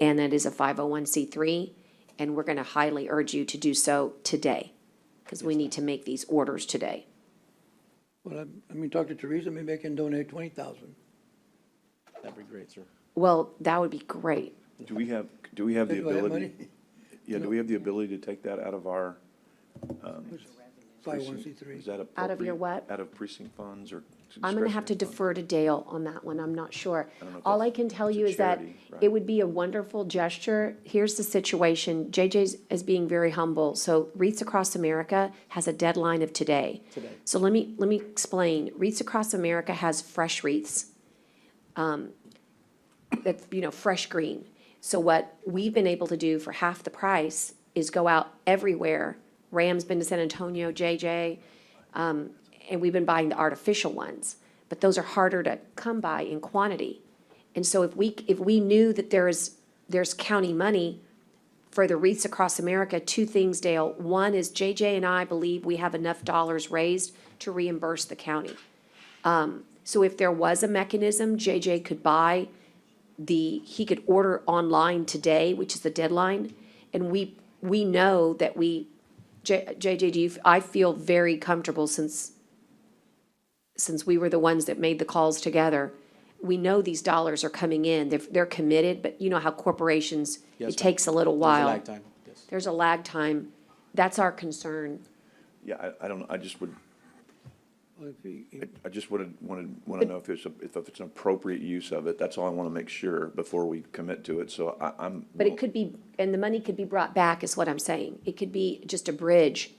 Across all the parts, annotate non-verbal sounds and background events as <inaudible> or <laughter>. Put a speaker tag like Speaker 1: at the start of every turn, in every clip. Speaker 1: and that is a 501c3, and we're going to highly urge you to do so today, because we need to make these orders today.
Speaker 2: Well, I- I mean, talk to Teresa, maybe I can donate twenty thousand.
Speaker 3: That'd be great, sir.
Speaker 1: Well, that would be great.
Speaker 4: Do we have, do we have the
Speaker 2: Do I have
Speaker 4: ability?
Speaker 2: money? <laughs>
Speaker 4: Yeah, do we have the ability to take that out of our?
Speaker 2: Five one C
Speaker 4: precinct?
Speaker 2: three.
Speaker 4: Is that appropriate?
Speaker 1: Out of your what?
Speaker 4: Out of precinct funds or?
Speaker 1: I'm gonna have to
Speaker 4: discretionary funds?
Speaker 1: defer to Dale on that one, I'm not sure.
Speaker 4: I don't know if
Speaker 1: All I
Speaker 4: that's-
Speaker 1: can tell
Speaker 4: it's a
Speaker 1: you is that
Speaker 4: charity,
Speaker 1: it
Speaker 4: right?
Speaker 1: would be a wonderful gesture. Here's the situation, JJ's is being very humble, so Wreaths Across America has a deadline of today. Today. So let me, let me explain, Wreaths Across America has fresh wreaths. Um, that's, you know, fresh green. So what we've been able to do for half the price is go out everywhere. Ram's been to San Antonio, JJ, and we've been buying the artificial ones, but those are harder to come by in quantity. And so if we, if we knew that there is, there's county money for the wreaths across America, two things, Dale. One is JJ and I believe we have enough dollars raised to reimburse the county. Um, so if there was a mechanism, JJ could buy the, he could order online today, which is the deadline. And we, we know that we, J- JJ, do you, f- I feel very comfortable since since we were the ones that made the calls together, we know these dollars are coming in. They're, they're committed, but you know how corporations,
Speaker 3: Yes,
Speaker 1: it
Speaker 3: ma'am.
Speaker 1: takes a little
Speaker 3: There's a
Speaker 1: while.
Speaker 3: lag time, yes.
Speaker 1: There's a lag time. That's our concern.
Speaker 4: Yeah, I, I don't, know. I just would,
Speaker 2: Well, if he- he-
Speaker 4: I just wanted, wanted, want to know if it's, a- if it's an appropriate use of it. That's all I want to make sure before we commit to it, so I, I'm.
Speaker 1: But it could be, and the money could be brought back is what I'm saying. It could be just a bridge,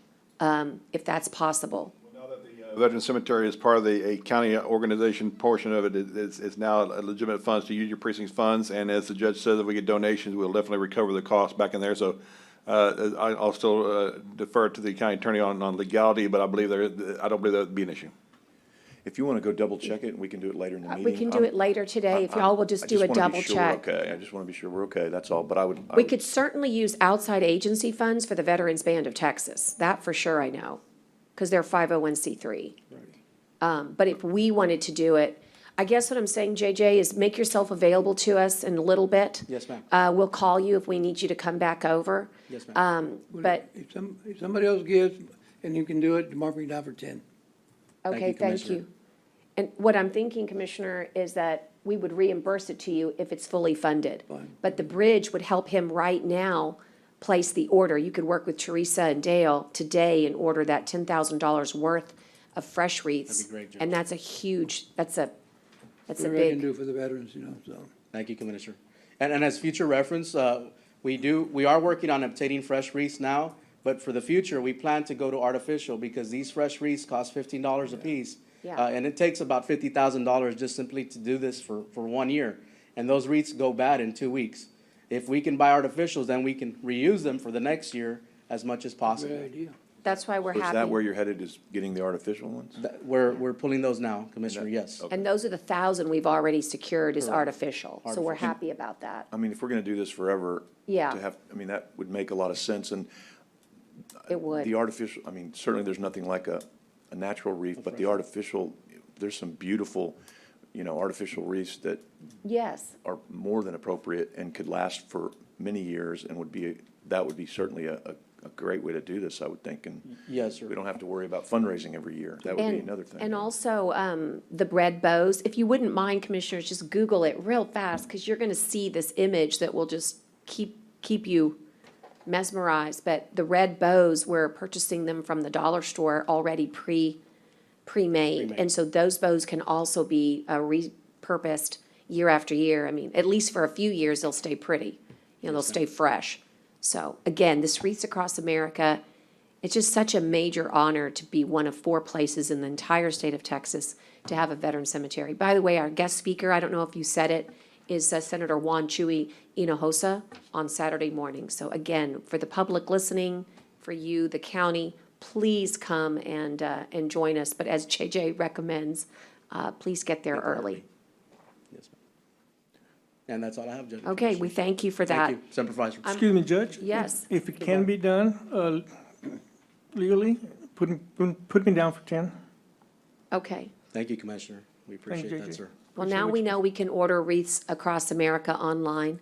Speaker 1: um, if that's possible.
Speaker 5: Now that the uh, Veteran Cemetery is part of the a county organization portion of it, it- it's, it's now legitimate funds to use your precinct's funds. And as the judge says, if we get donations, we'll definitely recover the cost back in there. So uh, I- I'll still uh, defer to the county attorney on, on legality, but I believe there, I don't believe that would be an issue.
Speaker 4: If you want to go double check it, we can do it later in the
Speaker 1: Uh,
Speaker 4: meeting.
Speaker 1: We can do
Speaker 4: I'm-
Speaker 1: it later today if y'all will just
Speaker 4: I
Speaker 1: do a
Speaker 4: wanna be
Speaker 1: double
Speaker 4: sure
Speaker 1: check.
Speaker 4: we're Okay, um, I just want to be sure we're okay, that's all, but I would. I
Speaker 1: We
Speaker 4: would-
Speaker 1: could certainly use outside agency funds for the Veterans Band of Texas, that for sure I know, because they're five oh one C three. Um, but if we wanted to do it, I guess what I'm saying, JJ, is make yourself available to us in a little bit.
Speaker 3: Yes, ma'am.
Speaker 1: Uh, we'll call you if we need you to come back over.
Speaker 3: Yes, ma'am.
Speaker 1: Um, but,
Speaker 2: If some, if somebody else gives and you can do it, mark me down for ten.
Speaker 3: you,
Speaker 1: okay, thank
Speaker 3: Commissioner.
Speaker 1: you. And what I'm thinking, Commissioner, is that we would reimburse it to you if it's fully funded.
Speaker 2: Fine.
Speaker 1: But the bridge would help him right now place the order. You could work with Teresa and Dale today and order that ten thousand dollars worth of fresh wreaths.
Speaker 3: That'd be great, Judge.
Speaker 1: And that's a huge, that's a, that's a
Speaker 2: Whatever I can
Speaker 1: big,
Speaker 2: do for the veterans, you know, so.
Speaker 3: Thank you, Commissioner. And, and as future reference, uh, we do, we are working on obtaining fresh wreaths now, but for the future, we plan to go to artificial because these fresh wreaths cost fifteen dollars a piece.
Speaker 1: Yeah.
Speaker 3: Uh, and it takes about fifty thousand dollars just simply to do this for, for one year. And those wreaths go bad in two weeks. If we can buy artificials, then we can reuse them for the next year as much as
Speaker 2: Great
Speaker 3: possible.
Speaker 2: idea.
Speaker 1: that's why we're
Speaker 4: Is that where
Speaker 1: happy.
Speaker 4: you're headed, is getting the artificial ones?
Speaker 3: That- We're, we're pulling those now, Commissioner, yes.
Speaker 1: And those are the thousand we've already secured is artificial, so we're
Speaker 3: Artificial.
Speaker 1: happy about that.
Speaker 4: I mean, if we're gonna do this forever.
Speaker 1: Yeah.
Speaker 4: To have, I mean, that would make a lot of sense, and
Speaker 1: It
Speaker 4: the
Speaker 1: would.
Speaker 4: artificial, I mean, certainly there's nothing like a, a natural reef, but the artificial, there's some beautiful, you know, artificial reefs that
Speaker 1: Yes,
Speaker 4: are more than appropriate and could last for many years and would be, that would be certainly a, a, a great way to do this, I would think, and
Speaker 3: Yes, sir.
Speaker 4: we don't have to worry about fundraising every year. That would be
Speaker 1: and,
Speaker 4: another thing.
Speaker 1: and also, um, the bread bows, if you wouldn't mind, Commissioners, just Google it real fast, because you're gonna see this image that will just keep, keep you mesmerized, but the red bows, we're purchasing them from the dollar store already pre, pre-made. And so those bows can also be, uh, repurposed year after year. I mean, at least for a few years, they'll stay pretty. You know, they'll stay fresh. So again, this Wreaths Across America, it's just such a major honor to be one of four places in the entire state of Texas to have a veteran cemetery. By the way, our guest speaker, I don't know if you said it, is uh, Senator Juan Chuy Hinojosa on Saturday morning. So again, for the public listening, for you, the county, please come and, uh, and join us. But as JJ recommends, uh, please get there early.
Speaker 3: Yes, ma'am. And that's all I have, Judge. and
Speaker 1: Okay, we
Speaker 3: Commissioners.
Speaker 1: thank you for
Speaker 3: Thank
Speaker 1: that.
Speaker 3: you, Semper Fi.
Speaker 6: Excuse me, Judge?
Speaker 1: Yes.
Speaker 6: If it can be done uh, legally, put, me- put- put me down for 10.
Speaker 1: Okay.
Speaker 3: Thank you, Commissioner. We appreciate that,
Speaker 6: JJ.
Speaker 3: sir.
Speaker 1: Well, now we know we can order wreaths across America online.